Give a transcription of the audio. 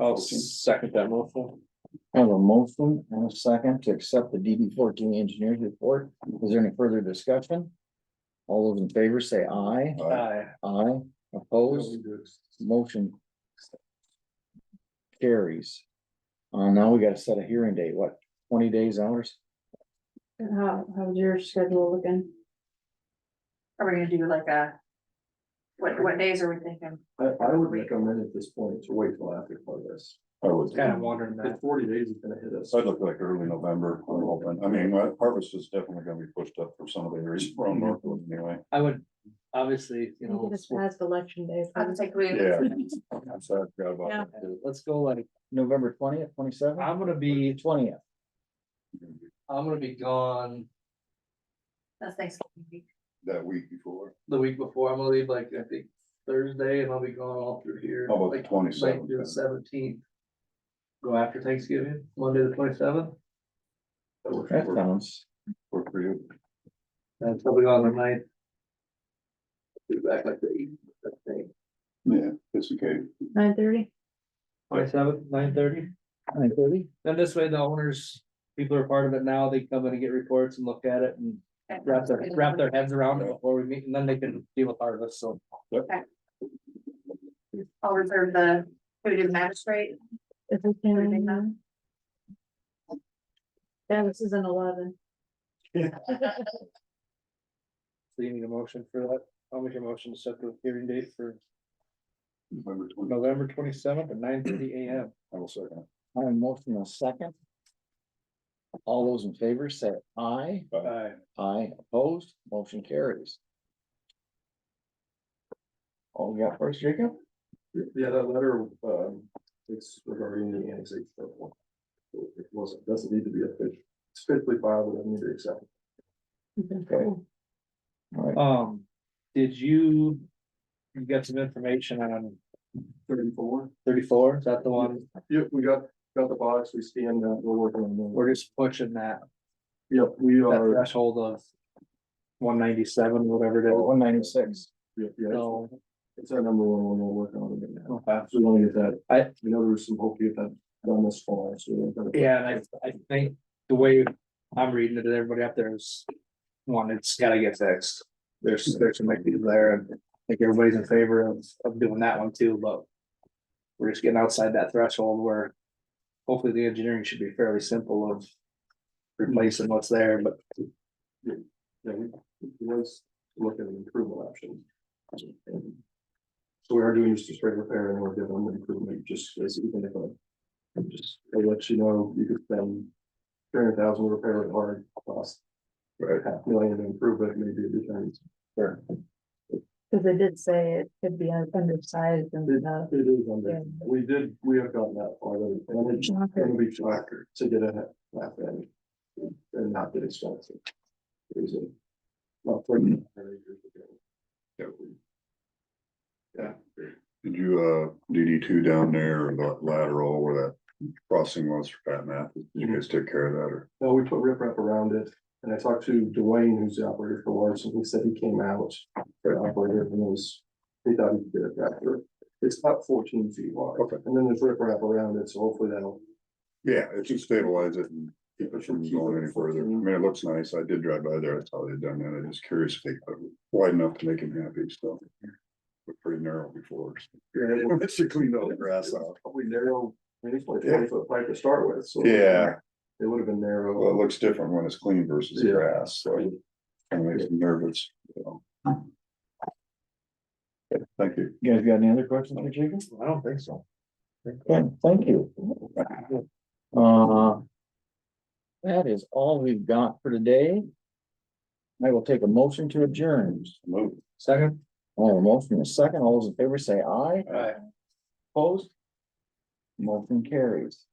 I'll second that motion. I have a motion and a second to accept the DD fourteen engineers report. Is there any further discussion? All those in favor say aye. Aye. Aye. Opposed, motion. Carries. Uh, now we gotta set a hearing date, what, twenty days hours? How, how's your schedule looking? Are we gonna do like a? What, what days are we thinking? I, I would recommend at this point to wait till after harvest. I would, Kind of wondering The that. forty days is gonna hit us. Oh, so I'd look like early November, I'm hoping, I mean, my harvest is definitely gonna be pushed up for some of the areas around Northwood anyway. I would, obviously, you You know, get us past election day. I would take we. Yeah. I'm sorry, I forgot about Yeah. that. let's go like, November twentieth, twenty seventh, I'm gonna be, twentieth, I'm gonna be gone That's Thanksgiving week. That week before, the week before. I'm gonna leave like, I think Thursday and I'll be gone all through here. how about the like, twenty like the seventh? seventeenth. Go after Thanksgiving, Monday the twenty seventh. that sounds. For for you, And I'll be gone the night. Be back like the eighth, I think. yeah, it's okay, Nine thirty? Twenty seventh, nine thirty. Nine thirty? Then this way the owners, people are part of it now, they come in and get reports and look at it and wrap their, wrap their heads around it before we meet and then they can deal with harvest, so. I'll reserve the, can we do the magistrate? If we can. Yeah, this is an eleven. So you need a motion for that. I'll make a motion to set the hearing date for November twenty, November twenty seventh at nine thirty AM. I will second. I have a motion and a second. All those in favor say aye. Aye. Aye, opposed, motion carries. All we got first, Jacob? Yeah, that letter, um, it's regarding the annexation. of one. It wasn't, doesn't need to be official, it's fitly filed, we don't need to accept. it. Okay. All right, Um, did you, you got some information on Thirty-four, thirty-four? Is that the one? yep, we got, got the box, we scanned that, we're working on that. We're just pushing that, Yep, we that are, threshold of one ninety-seven, whatever it is. Oh, one ninety-six. yep, yeah, it's- So it's our number one, one we're working on it right now. Okay. So we wanna get that, I- we know there's some hope to get that done this fall, so. we're gonna- Yeah, and I, I think the way I'm reading it, everybody up there is, one, it's gotta get fixed. There's, there's some issues there, and I think everybody's in favor of, of doing that one too, but we're just getting outside that threshold where hopefully the engineering should be fairly simple of replacing what's there, but Yeah, we, let's look at an improvement option. So we are doing just a straight repair and we're giving them an improvement, just as even if I. Just, they let you know, you could spend three hundred thousand repair it hard, cost. Right, half million to improve it, maybe it depends. Sure. Cause they did say it could be undersized and stuff. It is under, Yeah. we did, we have gotten that far, and it's gonna be tracker to get a half end. And not get expensive. It was a- Not for. Yeah, we- Did you, uh, DD two down there, or that lateral where that crossing was for Pat Math, did you guys take care of that, or? No, we put riprap around it, and I talked to Dwayne, who's the operator for Larson, he said he came out. The operator and was, he thought he could get it back there. It's about fourteen feet wide. Okay. And then there's riprap around it, so hopefully that'll. Yeah, it should stabilize it and keep it from going any further. I mean, it looks nice. I did drive by there. That's how they'd done that. I'm just curious if they cut it wide enough to make him happy, so. But pretty narrow before. It's to clean all the grass out. Probably narrow, I mean, it's like twenty foot pipe to start with, so. Yeah, It would have been narrow. well, it looks different when it's clean versus Yeah. grass, so. Kind of makes me nervous, you know. Okay, Thank you. You guys got any other questions for Jacob? I don't think so. Okay, thank you. Uh, That is all we've got for today. I will take a motion to adjourn. Move. Second? I have a motion and a second. All those in favor say aye. Aye. Opposed? Motion carries.